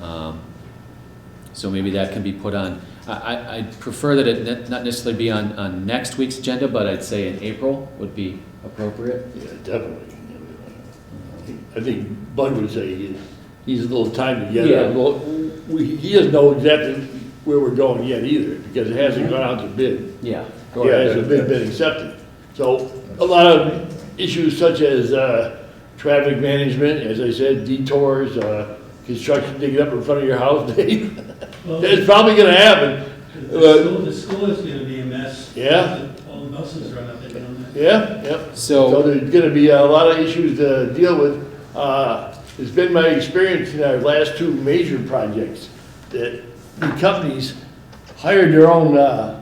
Um, So maybe that can be put on, I, I, I'd prefer that it ne- not necessarily be on, on next week's agenda, but I'd say in April would be appropriate. Yeah, definitely. I think Bud would say he needs a little time to get Yeah. it. Well, we, he doesn't know exactly where we're going yet either, because it hasn't gone out to bid. Yeah. Or Yeah, hasn't been, that- been accepted. So a lot of issues such as, uh, traffic management, as I said, detours, uh, construction digging up in front of your house, Dave. Well, It's probably gonna happen, The school, the school is gonna be a mess. Yeah. All the buses run up and down there. yeah, yep. So So, there's gonna be a lot of issues to deal with. Uh, It's been my experience in our last two major projects that the companies hired their own uh,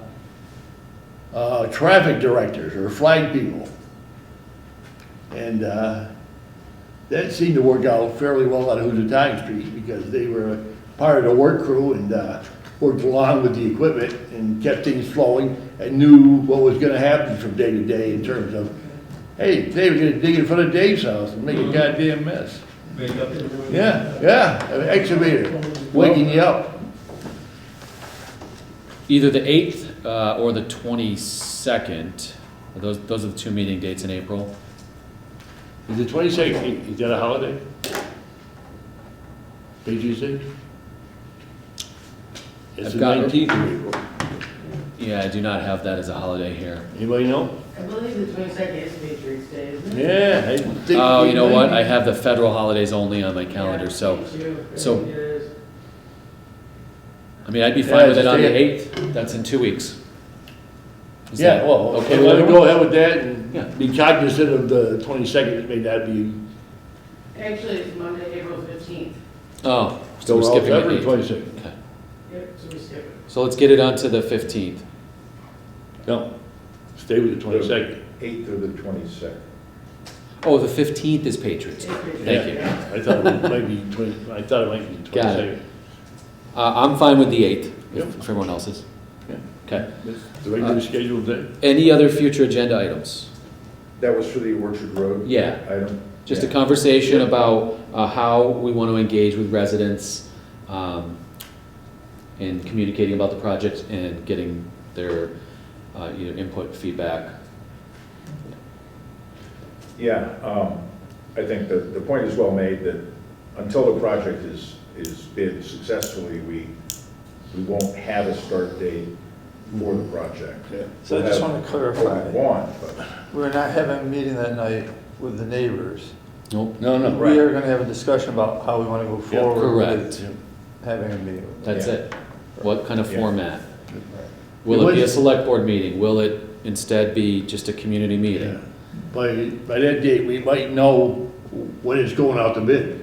uh, traffic directors or flag people. And uh, that seemed to work out fairly well on Housatonic Street because they were part of the work crew and uh, worked along with the equipment and kept things flowing and knew what was gonna happen from day to day in terms of, hey, Dave's gonna dig in front of Dave's house and make a goddamn mess. Wake up in the morning. Yeah, yeah, an excavator waking you up. either the eighth, uh, or the twenty-second, those, those are the two meeting dates in April. Is the twenty-second, is that a holiday? Patriots Day? It's I've the got it. nineteenth of April. Yeah, I do not have that as a holiday here. Anybody know? I believe the twenty-second is Patriots Day, isn't it? Yeah, I think. Oh, you know what, I have the federal holidays only on my calendar, so, me too. so- It is. I mean, I'd be Yeah, fine with it just on the take eighth, that's in two weeks. Is Yeah, that well, okay, okay let with me go everyone? ahead with that Yeah. and be cognizant of the twenty-second, it may not be. Actually, it's Monday, April fifteenth. Oh, so we're Well, skipping February the eighth. 22nd. Okay. Yep, so we skip it. So let's get it onto the fifteenth. No, stay with the twenty-second. 8th through the 22nd. Oh, the fifteenth is It's Patriots. Day. Patriots Thank Day. you. I thought it might be twenty, I thought it might be the Got twenty-second. it. Uh, I'm fine with the eighth, Yep. if if everyone else is. Yeah. Okay. The regular scheduled day. Any other future agenda items? That was for the Orchard Road Yeah, item? just a Yeah. conversation about uh, how we want to engage with residents um, in communicating about the project and getting their, uh, you know, input, feedback. Yeah, um, I think that the point is well made that until the project is, is bid successfully, we, we won't have a start date for the project. So I just want to We'll clarify, want, but we're not having a meeting that night with the neighbors. Nope, No, no. We are going to have a discussion about how we want to go forward correct. with having a meeting. with them. That's Yeah. it. What kind of Yeah. format? Right. Will it be a was- select board meeting? Will it instead be just a community meeting? By, by that date, we might know when it's going out to bid,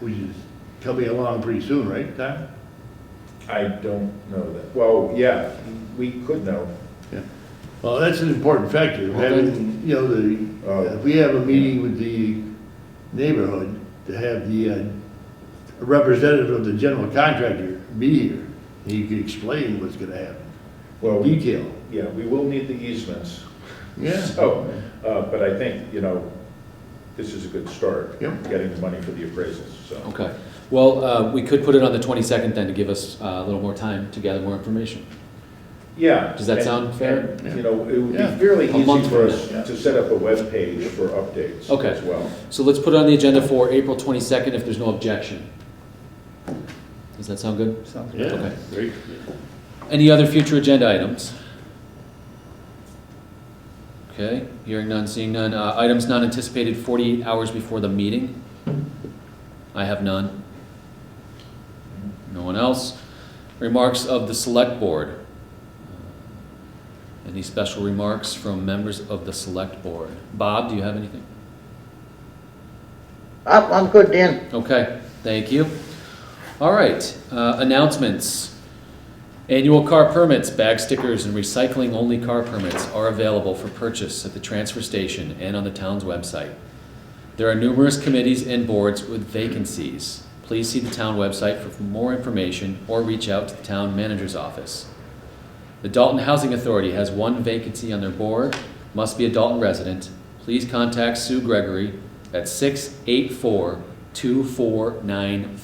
which is coming along pretty soon, right, Tom? I don't know that. Well, yeah, we could know. Well, that's an important factor, having, you know, Oh. the, if we have a meeting with the neighborhood, to have the uh, representative of the general contractor be here, he can explain what's gonna happen, Well, we- detail. yeah, we will need the easements. Yeah. So, uh, but I think, you know, this is a good start. Yep. Getting the money for the appraisals, so. Okay, well, uh, we could put it on the 22nd then to give us uh, a little more time to gather more information. Yeah. Does that and- sound fair? and, You know, it would Yeah. be fairly A month easy for from us to set up a web page for updates Okay. as well. So let's put it on the agenda for April 22nd if there's no objection. Does that sound good? Sounds good. Yeah, Okay. great. Any other future agenda items? Okay, hearing none, seeing none. Uh, Items not anticipated 48 hours before the meeting? I have none. No one else? Remarks of the Select Board? Uh, Any special remarks from members of the Select Board? Bob, do you have anything? Oh, I'm, I'm good, Dan. Okay, thank you. All right, uh, announcements. Annual car permits, bag stickers, and recycling-only car permits are available for purchase at the transfer station and on the town's website. There are numerous committees and boards with vacancies. Please see the town website for more information or reach out to the town manager's office. The Dalton Housing Authority has one vacancy on their board, must be a Dalton resident. Please contact Sue Gregory at 684 2495